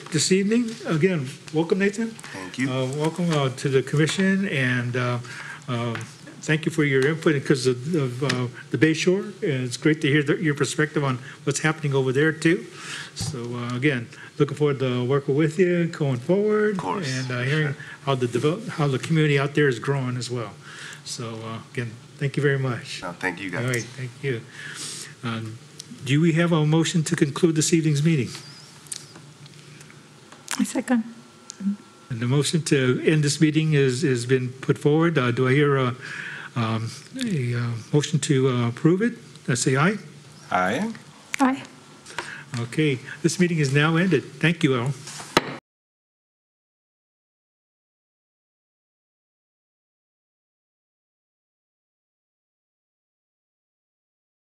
this evening. Again, welcome, Nathan. Thank you. Uh, Welcome uh, to the commission, and uh, uh, thank you for your input, because of of, uh, the Bay Shore, and it's great to hear the- your perspective on what's happening over there, too. So uh, again, looking forward to working with you going forward. Of course. And uh, hearing how the, develop- how the community out there is growing as well. So uh, again, thank you very much. No, thank you All right, guys. thank you. Um, Do we have a motion to conclude this evening's meeting? I second. And the motion to end this meeting is, has been put forward. Uh, Do I hear a, um, a uh, motion to uh, approve it? Uh, Say aye. Aye. Aye. Okay, this meeting is now ended. Thank you all.